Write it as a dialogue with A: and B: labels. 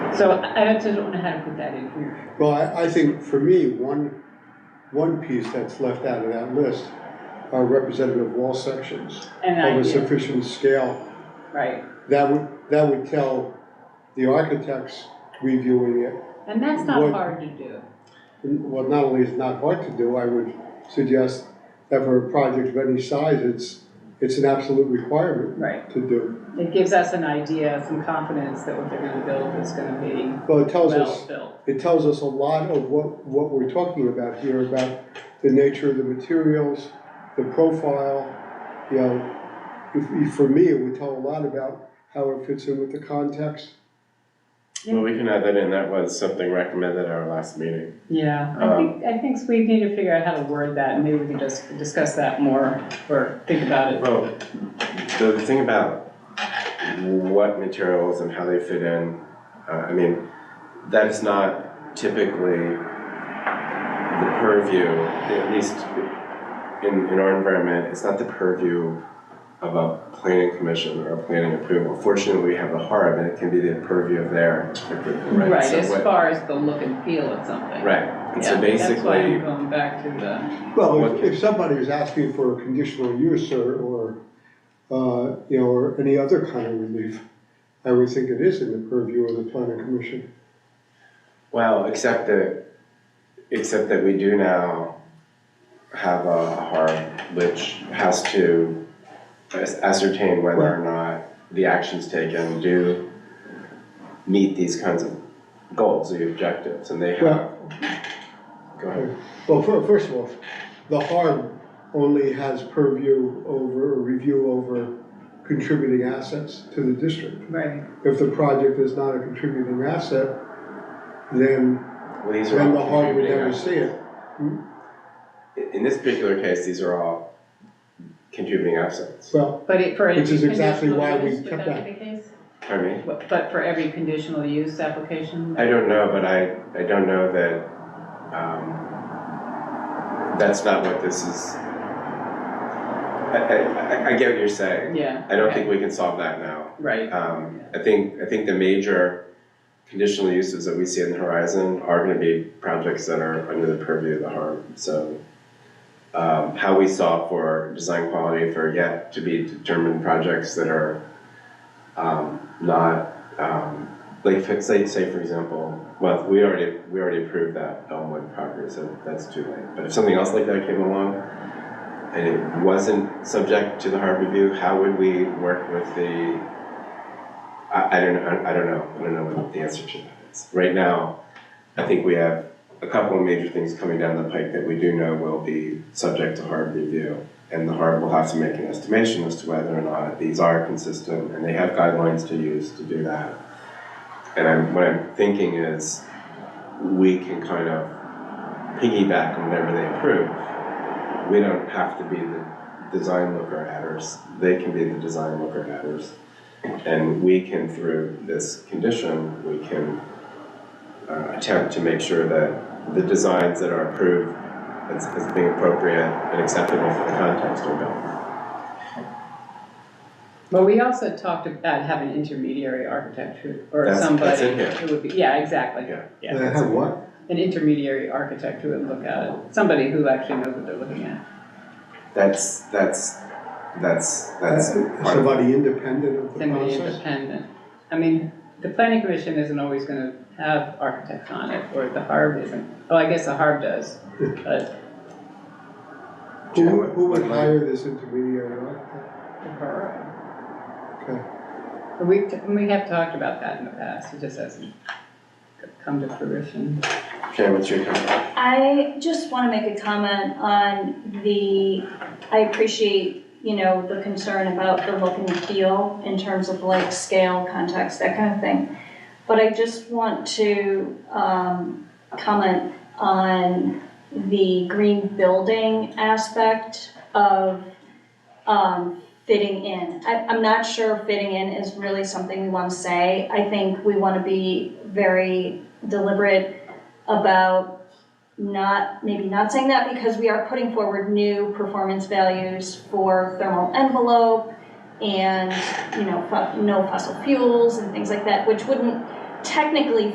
A: So I I just don't know how to put that in here.
B: Well, I, I think for me, one, one piece that's left out of that list are representative wall sections
A: And I,
B: of a
A: yeah,
B: sufficient scale.
A: right,
B: That would, that would tell the architects reviewing it,
A: and that's not
B: What-
A: hard to do.
B: well, not only is it not hard to do, I would suggest that for a project of any size, it's, it's an absolute requirement
A: Right,
B: to do.
A: it gives us an idea, some confidence that what they're gonna build is gonna be
B: Well, it tells us.
A: well built.
B: it tells us a lot of what, what we're talking about here, about the nature of the materials, the profile, you know. If- if- For me, it would tell a lot about how it fits in with the context.
C: Well, we can add that in, that was something recommended at our last meeting.
A: Yeah, I
C: Um,
A: think, I think we need to figure out how to word that, and maybe we can just discuss that more, or think about it.
C: Well, the thing about what materials and how they fit in, uh, I mean, that is not typically the purview, at least in, in our environment, it's not the purview of a planning commission or a planning approval. Fortunately, we have the HARB and it can be the purview of their approval, right?
A: Right,
C: So
A: as
C: what-
A: far as the look and feel of something.
C: Right, and
A: Yeah,
C: so
A: That's why
C: basically,
A: I'm going back to the,
B: Well, if, if somebody was asking for a conditional use or, or, uh, you know, or any other kind of relief, I would think it is in the purview of the planning commission.
C: Well, except that, except that we do now have a harm which has to as- ascertain whether or not the actions taken do meet these kinds of goals or objectives, and they have.
B: Well-
C: Go ahead.
B: Well, fir- first of all, the harm only has purview over, or review over contributing assets to the district.
A: right,
B: If the project is not a contributing asset, then,
C: Well, these are
B: then the
C: all
B: HARB would
C: contributing
B: never
C: act-
B: see it.
C: In- In this particular case, these are all contributing assets,
B: Well,
A: but it, for every
B: Which is exactly
A: conditional
B: why we
A: use, would
B: kept
A: that be the case?
C: pardon me?
A: But but for every conditional use application?
C: I don't know, but I, I don't know that, um, that's not what this is. I, I, I- I get what you're saying.
A: Yeah.
C: I don't think we can solve that now.
A: Right,
C: Um, I think, I think the major conditional uses that we see on the horizon are gonna be projects that are under the purview of the harm, so. Um, how we solve for design quality for yet to be determined projects that are, um, not, um, like, for- say, say for example, well, we already, we already approved that Elmwood property, so that's too late. But if something else like that came along, and it wasn't subject to the hard review, how would we work with the, I, I don't, I I don't know, I don't know what the answer to that is. Right now, I think we have a couple of major things coming down the pike that we do know will be subject to hard review. And the hard will have to make an estimation as to whether or not these are consistent, and they have guidelines to use to do that. And I'm, what I'm thinking is, we can kind of piggyback on whatever they approve. We don't have to be the design looker adders, they can be the design looker adders. And we can, through this condition, we can uh, attempt to make sure that the designs that are approved as, as being appropriate and acceptable for the context are built.
A: well, we also talked about having intermediary architecture or
C: That's-
A: somebody.
C: that's in here.
A: It would be, yeah, exactly.
C: Yeah.
B: they have what?
A: An intermediary architect who would look at it, somebody who actually knows what they're looking at.
C: That's, that's, that's, that's part of
B: Somebody independent of the
A: somebody
B: process?
A: independent. I mean, the planning commission isn't always gonna have architects on it, or the HARB isn't. Oh, I guess the HARB does, but
B: Who, who would hire this intermediary architect?
A: the borough.
B: Okay.
A: But we, we have talked about that in the past, it just hasn't come to fruition.
C: Sharon, what's your comment?
D: I just want to make a comment on the, I appreciate, you know, the concern about the look and feel in terms of like scale, context, that kind of thing. But I just want to um, comment on the green building aspect of um, fitting in. I, I'm not sure fitting in is really something we want to say. I think we want to be very deliberate about not, maybe not saying that because we are putting forward new performance values for thermal envelope and, you know, fu- no fossil fuels and things like that, which wouldn't technically